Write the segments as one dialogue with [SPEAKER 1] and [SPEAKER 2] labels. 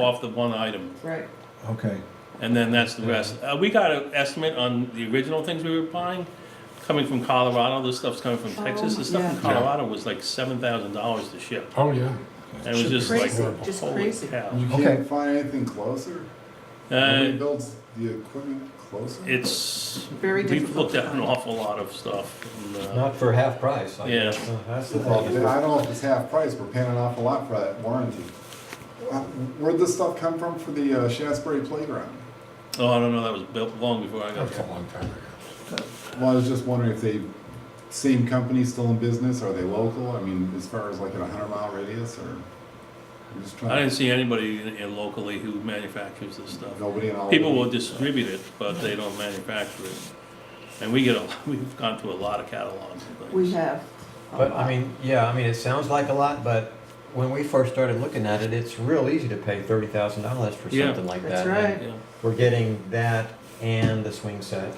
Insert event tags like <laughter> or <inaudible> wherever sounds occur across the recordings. [SPEAKER 1] off the one item,
[SPEAKER 2] Right,
[SPEAKER 3] Okay,
[SPEAKER 1] and then that's the rest. Uh, we got an estimate on the original things we were buying, coming from Colorado, this stuff's coming from Texas, the stuff
[SPEAKER 2] Oh,
[SPEAKER 1] from
[SPEAKER 4] yeah.
[SPEAKER 1] Colorado was like seven thousand dollars to ship.
[SPEAKER 4] Oh, yeah.
[SPEAKER 1] And it was just like,
[SPEAKER 2] Crazy, just
[SPEAKER 1] holy
[SPEAKER 2] crazy.
[SPEAKER 1] cow.
[SPEAKER 5] You
[SPEAKER 3] Okay.
[SPEAKER 5] can't find anything closer? Nobody
[SPEAKER 1] Uh,
[SPEAKER 5] builds the equipment closer?
[SPEAKER 1] it's,
[SPEAKER 2] Very
[SPEAKER 1] we've
[SPEAKER 2] difficult
[SPEAKER 1] looked
[SPEAKER 2] to
[SPEAKER 1] at an
[SPEAKER 2] find.
[SPEAKER 1] awful lot of stuff. and, uh,
[SPEAKER 6] Not for half price. I
[SPEAKER 1] Yeah.
[SPEAKER 6] guess. Uh, That's the
[SPEAKER 5] Yeah, I don't
[SPEAKER 6] problem.
[SPEAKER 5] know if it's half price, we're paying an awful lot for that warranty. Uh, Where'd this stuff come from for the uh, Shasberry Playground?
[SPEAKER 1] Oh, I don't know, that was built long before I got
[SPEAKER 4] That's a
[SPEAKER 1] here.
[SPEAKER 4] long time ago.
[SPEAKER 5] Well, I was just wondering if they, same company still in business, are they local? I mean, as far as like in a hundred mile radius or? I'm just
[SPEAKER 1] I
[SPEAKER 5] trying,
[SPEAKER 1] didn't see anybody in- in locally who manufactures this stuff.
[SPEAKER 5] nobody in all.
[SPEAKER 1] People will distribute it, but they don't manufacture it. And we get a, <laughs> we've gone through a lot of catalogs and things.
[SPEAKER 2] We have. a
[SPEAKER 6] But
[SPEAKER 2] lot.
[SPEAKER 6] I mean, yeah, I mean, it sounds like a lot, but when we first started looking at it, it's real easy to pay thirty thousand dollars for
[SPEAKER 1] Yeah.
[SPEAKER 6] something like
[SPEAKER 2] That's
[SPEAKER 6] that.
[SPEAKER 2] right.
[SPEAKER 1] Yeah.
[SPEAKER 6] We're getting that and the swing set,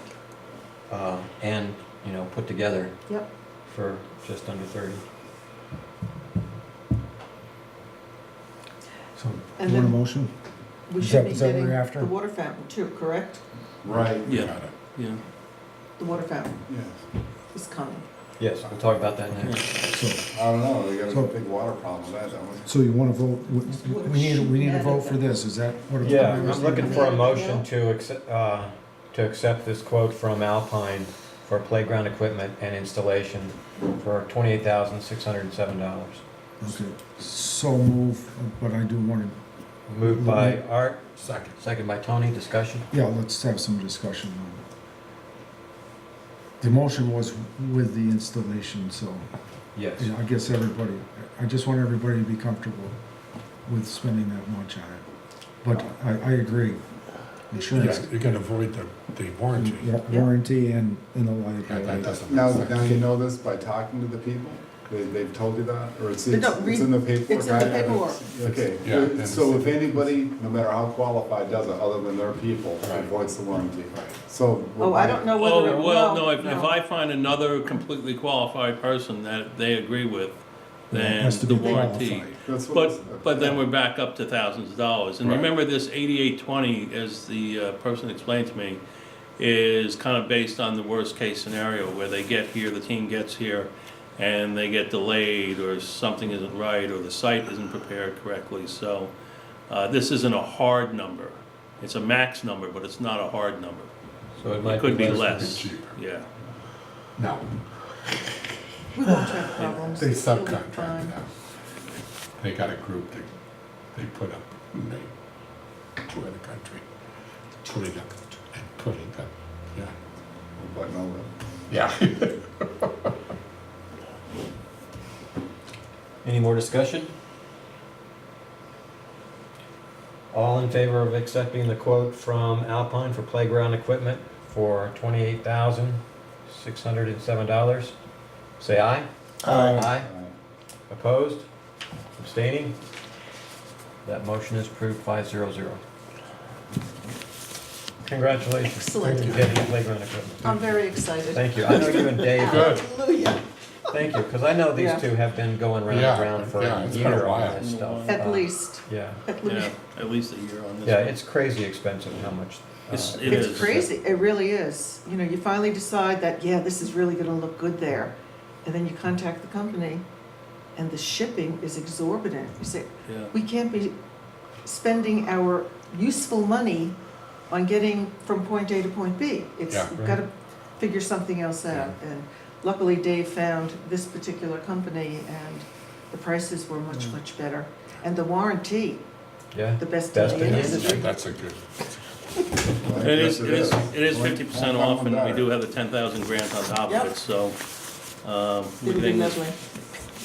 [SPEAKER 6] uh, and, you know, put together
[SPEAKER 2] Yep,
[SPEAKER 6] for just under thirty.
[SPEAKER 3] so
[SPEAKER 2] And
[SPEAKER 3] you want a
[SPEAKER 2] then-
[SPEAKER 3] motion?
[SPEAKER 2] we
[SPEAKER 3] Is
[SPEAKER 2] should
[SPEAKER 3] that-
[SPEAKER 2] be
[SPEAKER 3] is that what
[SPEAKER 2] getting
[SPEAKER 3] we're after?
[SPEAKER 2] the water fountain too, correct?
[SPEAKER 5] Right,
[SPEAKER 1] Yeah, yeah.
[SPEAKER 2] The water fountain
[SPEAKER 5] yeah.
[SPEAKER 2] is coming.
[SPEAKER 6] Yes, we'll talk about that next.
[SPEAKER 3] So,
[SPEAKER 5] I don't know, they got
[SPEAKER 3] So-
[SPEAKER 5] a big water problem, that, that was.
[SPEAKER 3] so you want to vote, we- we we need, we need a vote for this, is that what? it's-
[SPEAKER 6] Yeah, I'm looking for a
[SPEAKER 2] Yeah.
[SPEAKER 6] motion to accept, uh, to accept this quote from Alpine for playground equipment and installation for twenty-eight thousand, six hundred and seven dollars.
[SPEAKER 3] Okay, so move, but I do want
[SPEAKER 6] Moved by Art,
[SPEAKER 4] Second.
[SPEAKER 6] second by Tony, discussion?
[SPEAKER 3] to, yeah, let's have some discussion on it. The motion was with the installation, so,
[SPEAKER 6] Yes.
[SPEAKER 3] yeah, I guess everybody, I just want everybody to be comfortable with spending that much on it. But I, I agree, insurance,
[SPEAKER 4] Yeah, you can avoid the, the warranty.
[SPEAKER 3] wa- warranty and, and the
[SPEAKER 4] Yeah, that
[SPEAKER 3] liability.
[SPEAKER 4] doesn't
[SPEAKER 5] Now,
[SPEAKER 4] make
[SPEAKER 5] now
[SPEAKER 4] sense.
[SPEAKER 5] you know this by talking to the people? They, they've told you that, or it's,
[SPEAKER 2] No,
[SPEAKER 5] it's
[SPEAKER 2] no,
[SPEAKER 5] it's in the paperwork?
[SPEAKER 2] it's in the
[SPEAKER 5] I- I haven't
[SPEAKER 2] paperwork.
[SPEAKER 5] seen- Okay,
[SPEAKER 4] Yeah,
[SPEAKER 5] Uh,
[SPEAKER 4] and
[SPEAKER 5] so
[SPEAKER 4] it's-
[SPEAKER 5] if anybody, no matter how qualified, does it, other than their people,
[SPEAKER 4] Right.
[SPEAKER 5] avoids the warranty.
[SPEAKER 4] Right.
[SPEAKER 5] So.
[SPEAKER 2] Oh, I don't know whether,
[SPEAKER 1] Oh,
[SPEAKER 2] it-
[SPEAKER 1] well, no,
[SPEAKER 2] well,
[SPEAKER 1] if, if I find another completely qualified person that they agree with, then
[SPEAKER 3] Has to
[SPEAKER 1] the
[SPEAKER 3] be
[SPEAKER 1] warranty.
[SPEAKER 3] qualified.
[SPEAKER 5] That's what it's-
[SPEAKER 1] But, but then we're back up to thousands of dollars. And
[SPEAKER 4] Right.
[SPEAKER 1] remember this eighty-eight twenty, as the uh, person explained to me, is kind of based on the worst-case scenario where they get here, the team gets here, and they get delayed, or something isn't right, or the site isn't prepared correctly. So, uh, this isn't a hard number. It's a max number, but it's not a hard number.
[SPEAKER 6] So it
[SPEAKER 1] It
[SPEAKER 6] might
[SPEAKER 1] could be
[SPEAKER 4] Could
[SPEAKER 1] less,
[SPEAKER 4] be cheaper.
[SPEAKER 1] yeah.
[SPEAKER 4] No,
[SPEAKER 2] we won't have problems.
[SPEAKER 4] they
[SPEAKER 2] It'll be
[SPEAKER 4] subcontract
[SPEAKER 2] fine.
[SPEAKER 4] it out. They got a group that they put up, and they tour the country, put it up, and put it up, yeah.
[SPEAKER 5] But no,
[SPEAKER 4] Yeah.
[SPEAKER 6] Any more discussion? All in favor of accepting the quote from Alpine for playground equipment for twenty-eight thousand, six hundred and seven dollars? Say aye. Aye.
[SPEAKER 5] uh,
[SPEAKER 6] Opposed? Abstaining? That motion is approved five zero zero. Congratulations on
[SPEAKER 2] Excellent.
[SPEAKER 6] getting playground equipment.
[SPEAKER 2] I'm very excited.
[SPEAKER 6] Thank you. I know you and Dave
[SPEAKER 4] Good.
[SPEAKER 2] Hallelujah,
[SPEAKER 6] Thank you, because I know these
[SPEAKER 2] Yeah.
[SPEAKER 6] two have been going round and
[SPEAKER 4] Yeah,
[SPEAKER 6] round for
[SPEAKER 4] yeah,
[SPEAKER 6] a
[SPEAKER 4] it's been a
[SPEAKER 6] year on
[SPEAKER 4] while.
[SPEAKER 6] this stuff. Uh,
[SPEAKER 2] at least,
[SPEAKER 6] Yeah,
[SPEAKER 2] at
[SPEAKER 1] Yeah,
[SPEAKER 2] least.
[SPEAKER 1] at least a year on this.
[SPEAKER 6] yeah,
[SPEAKER 1] one.
[SPEAKER 6] it's crazy expensive how much. uh,
[SPEAKER 1] It's- it
[SPEAKER 2] It's
[SPEAKER 1] is.
[SPEAKER 2] crazy, it really is. You know, you finally decide that, yeah, this is really gonna look good there. And then you contact the company and the shipping is exorbitant. You say,
[SPEAKER 1] Yeah.
[SPEAKER 2] we can't be spending our useful money on getting from point A to point B. It's,
[SPEAKER 4] Yeah,
[SPEAKER 2] we've gotta figure something else out. And luckily Dave found this particular company and the prices were much, much better. And the warranty,
[SPEAKER 6] Yeah,
[SPEAKER 2] the best
[SPEAKER 6] Best
[SPEAKER 2] in the
[SPEAKER 6] in the
[SPEAKER 2] industry.
[SPEAKER 4] Yeah, That's a good,
[SPEAKER 5] right,
[SPEAKER 1] It is,
[SPEAKER 5] yes,
[SPEAKER 1] it is, it is
[SPEAKER 5] One-
[SPEAKER 1] fifty percent
[SPEAKER 5] one
[SPEAKER 1] off, and we
[SPEAKER 5] better.
[SPEAKER 1] do have the ten thousand grant on top
[SPEAKER 2] Yep.
[SPEAKER 1] of it, so, um, we
[SPEAKER 2] It'll be
[SPEAKER 1] think, this-
[SPEAKER 2] lovely.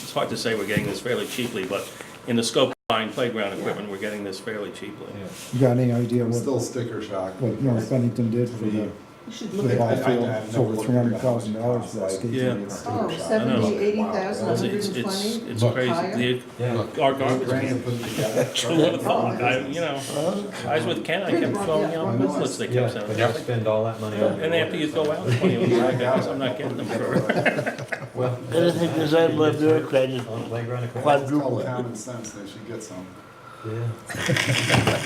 [SPEAKER 1] it's hard to say we're getting this fairly cheaply, but in the scope of buying playground equipment, we're getting this fairly cheaply.
[SPEAKER 6] yeah.
[SPEAKER 3] You got any idea
[SPEAKER 5] I'm
[SPEAKER 3] what,
[SPEAKER 5] still sticker shock.
[SPEAKER 3] what North Bennington did for the?
[SPEAKER 2] You should
[SPEAKER 3] for
[SPEAKER 2] look
[SPEAKER 3] the
[SPEAKER 2] at
[SPEAKER 3] ball
[SPEAKER 2] that.
[SPEAKER 3] field, it's over three hundred thousand dollars for that skate.
[SPEAKER 1] Yeah.
[SPEAKER 3] team.
[SPEAKER 2] Oh,
[SPEAKER 1] I know.
[SPEAKER 2] seventy, eighty thousand,
[SPEAKER 5] Wow.
[SPEAKER 1] It's,
[SPEAKER 2] hundred
[SPEAKER 1] it's,
[SPEAKER 2] and
[SPEAKER 1] it's
[SPEAKER 2] twenty?
[SPEAKER 1] it's
[SPEAKER 4] Look.
[SPEAKER 2] Higher?
[SPEAKER 1] crazy,
[SPEAKER 6] Yeah.
[SPEAKER 4] look,
[SPEAKER 1] the, our garbage,
[SPEAKER 5] Grand
[SPEAKER 1] can-
[SPEAKER 5] and put it together.
[SPEAKER 1] I would have thought, I,
[SPEAKER 5] Business.
[SPEAKER 1] you know, I was with Ken, I kept
[SPEAKER 2] Yeah.
[SPEAKER 1] throwing out
[SPEAKER 5] Yeah.
[SPEAKER 1] booklets they
[SPEAKER 6] Yeah,
[SPEAKER 1] kept
[SPEAKER 6] but
[SPEAKER 1] sending.
[SPEAKER 6] you
[SPEAKER 4] Yeah.
[SPEAKER 6] spend all that money on.
[SPEAKER 1] And after you throw out twenty of them, I guess I'm not
[SPEAKER 5] <laughs>
[SPEAKER 1] getting them for,
[SPEAKER 6] Well. <laughs>
[SPEAKER 7] Anything that's out of my bureaucrat is
[SPEAKER 6] On playground equipment.
[SPEAKER 7] quadruple.
[SPEAKER 5] Call common sense, they should get some.
[SPEAKER 6] Yeah.